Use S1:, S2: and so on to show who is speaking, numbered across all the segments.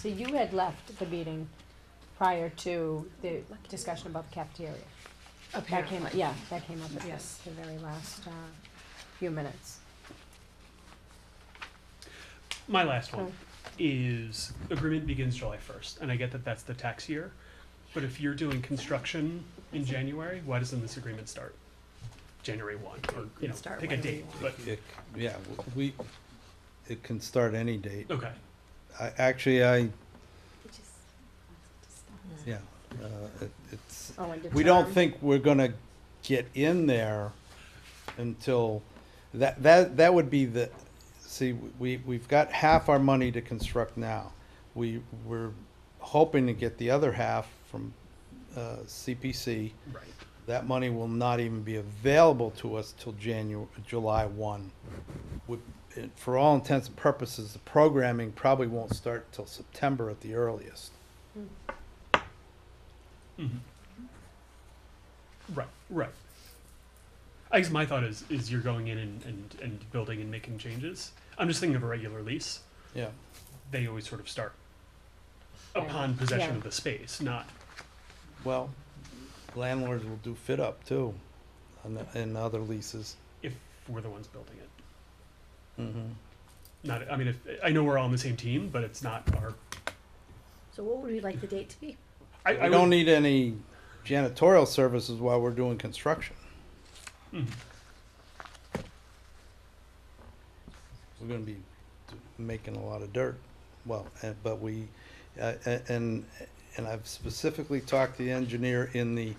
S1: So you had left the meeting prior to the discussion about the cafeteria. That came, up. yeah, that came up at
S2: Yes.
S1: the, the very last, uh, few minutes.
S3: My last
S1: Oh.
S3: one is agreement begins July first, and I get that that's the tax year, but if you're doing construction in January, why doesn't this agreement start January one, or, you know,
S2: Start
S3: pick a
S2: whenever you
S3: date, but,
S2: want.
S4: It, yeah, w- we, it can start any date.
S3: okay,
S4: I, actually, I,
S2: Mm.
S4: yeah, uh, it- it's,
S1: Oh, and the
S4: we don't
S1: term.
S4: think we're gonna get in there until, that, that, that would be the, see, we, we've got half our money to construct now. We, we're hoping to get the other half from, uh, CPC.
S3: right,
S4: That money will not even be available to us till Janu, July one. Would- it- For all intents and purposes, the programming probably won't start till September at the earliest.
S3: mhm. Right, right. I guess my thought is, is you're going in and, and, and building and making changes, I'm just thinking of a regular lease,
S4: Yeah,
S3: they always sort of start
S1: Right.
S3: upon possession
S1: Yeah.
S3: of the space, not,
S4: well, landlords will do fit up too, and, and other leases.
S3: if we're the ones building it.
S4: Mm-hmm.
S3: not i mean if, i know we're all on the same team but it's not our
S5: So what would we like the date to be?
S3: i, I
S4: We don't
S3: would-
S4: need any janitorial services while we're doing construction.
S3: Mhm.
S4: We're gonna be d- making a lot of dirt, well, and, but we, uh, a- and, and I've specifically talked to the engineer in the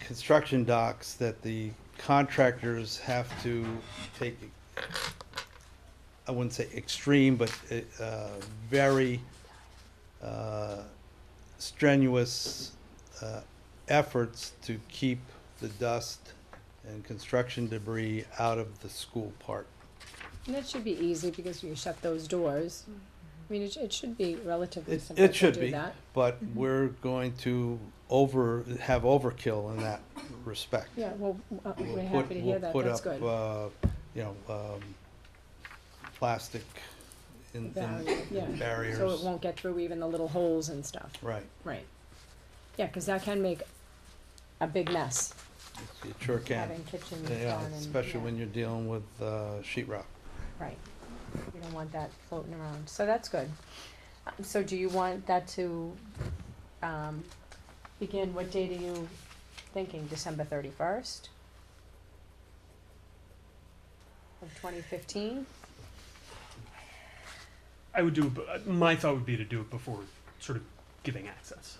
S4: construction docs that the contractors have to take, I wouldn't say extreme, but, uh, very, uh, strenuous uh, efforts to keep the dust and construction debris out of the school park.
S1: And that should be easy because you shut those doors.
S5: Mm-hmm.
S1: I mean, it, sh- it should be relatively
S4: It,
S1: simple to
S4: it should
S1: do
S4: be,
S1: that.
S4: but we're going to over, have overkill in that respect.
S1: Yeah, well, uh,
S4: We'll
S1: we're
S4: put-
S1: happy to hear
S4: we'll
S1: that,
S4: put
S1: that's
S4: up,
S1: good.
S4: uh, You know, um, plastic in, in
S1: Value, yeah. So it
S4: barriers,
S1: won't get through even the little holes and stuff,
S4: right,
S1: right? Yeah, cause that can make a big mess,
S4: it sure can.
S1: having kitchens done and.
S4: Yeah, especially
S1: yeah.
S4: when you're dealing with uh, sheet rock.
S1: Right, you don't want that floating around, so that's good. Uh, So do you want that to, um, begin, what date are you thinking, December thirty-first? Of twenty fifteen,
S3: I would do it b- uh, my thought would be to do it before sort of giving access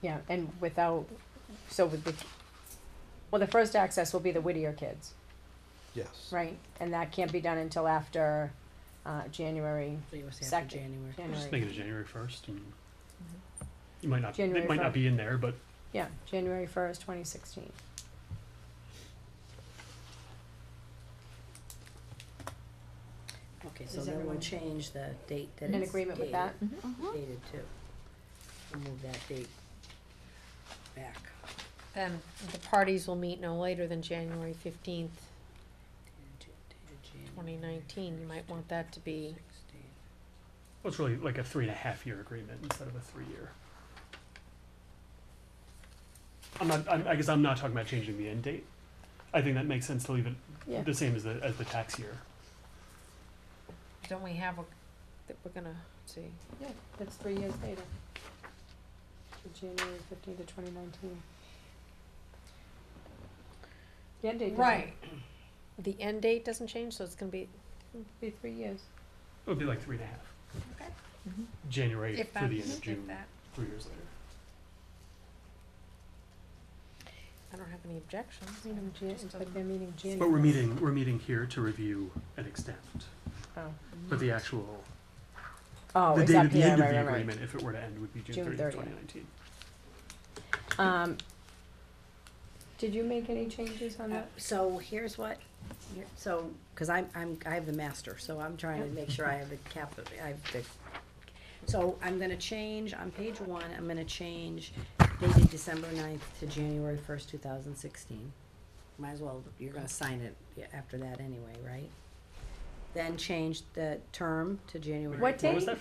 S1: yeah, and without, so with the, well, the first access will be the Whittier kids,
S4: Yes.
S1: right? And that can't be done until after, uh, January,
S2: So you were saying
S1: Second.
S2: after January.
S3: just make
S1: January,
S3: it a january 1st and you might not
S1: Mm-hmm. January
S3: it might not
S1: fir-
S3: be in there but
S1: yeah, January first, twenty sixteen.
S2: Okay, so
S5: Does
S2: then we'll
S5: everyone-
S2: change the date that it's
S1: In agreement with
S2: dated-
S1: that?
S2: Dated to. We'll move that date back.
S6: And the parties will meet no later than January fifteenth,
S2: Dated January
S6: twenty nineteen, you might want that to be,
S2: 16th.
S3: well, it's really like a three and a half year agreement instead of a three year i'm not I'm, i guess i'm not talking about changing the end date i think that makes sense to leave it
S1: Yeah.
S3: the same as the as the tax year
S6: don't we have a, that we're gonna see.
S1: Yeah, that's three years later. From January fifteenth to twenty nineteen. The end date doesn't,
S6: The end date doesn't change, so it's gonna be,
S1: be three years.
S3: it would be like three and a half
S6: Okay.
S3: january
S6: Mm-hmm. if
S3: through
S6: that,
S3: the end of
S6: if
S3: june
S6: that,
S3: three years later
S6: I don't have any objections.
S1: Meeting Jan-
S6: Just
S1: but
S6: doesn't-
S1: they're meeting January.
S3: but we're meeting we're meeting here to review and extend
S1: Oh.
S3: but the actual
S1: Oh,
S3: the
S1: it's
S3: date
S1: up
S3: at the
S1: here,
S3: end of
S1: right,
S3: the
S1: right, right.
S3: agreement, if it were to end, would be June
S1: June
S3: thirtieth,
S1: 30th.
S3: twenty nineteen.
S1: Um, did you make any changes on
S2: Uh,
S1: that?
S2: So here's what, you're- so, cause I'm, I'm, I have the master, so I'm trying to make sure I have the cap, I have the. So I'm gonna change, on page one, I'm gonna change dated December ninth to January first, two thousand sixteen. Might as well, you're gonna sign it yeah, after that anyway, right? Then change the term to January.
S1: What
S3: What was
S1: date?
S3: that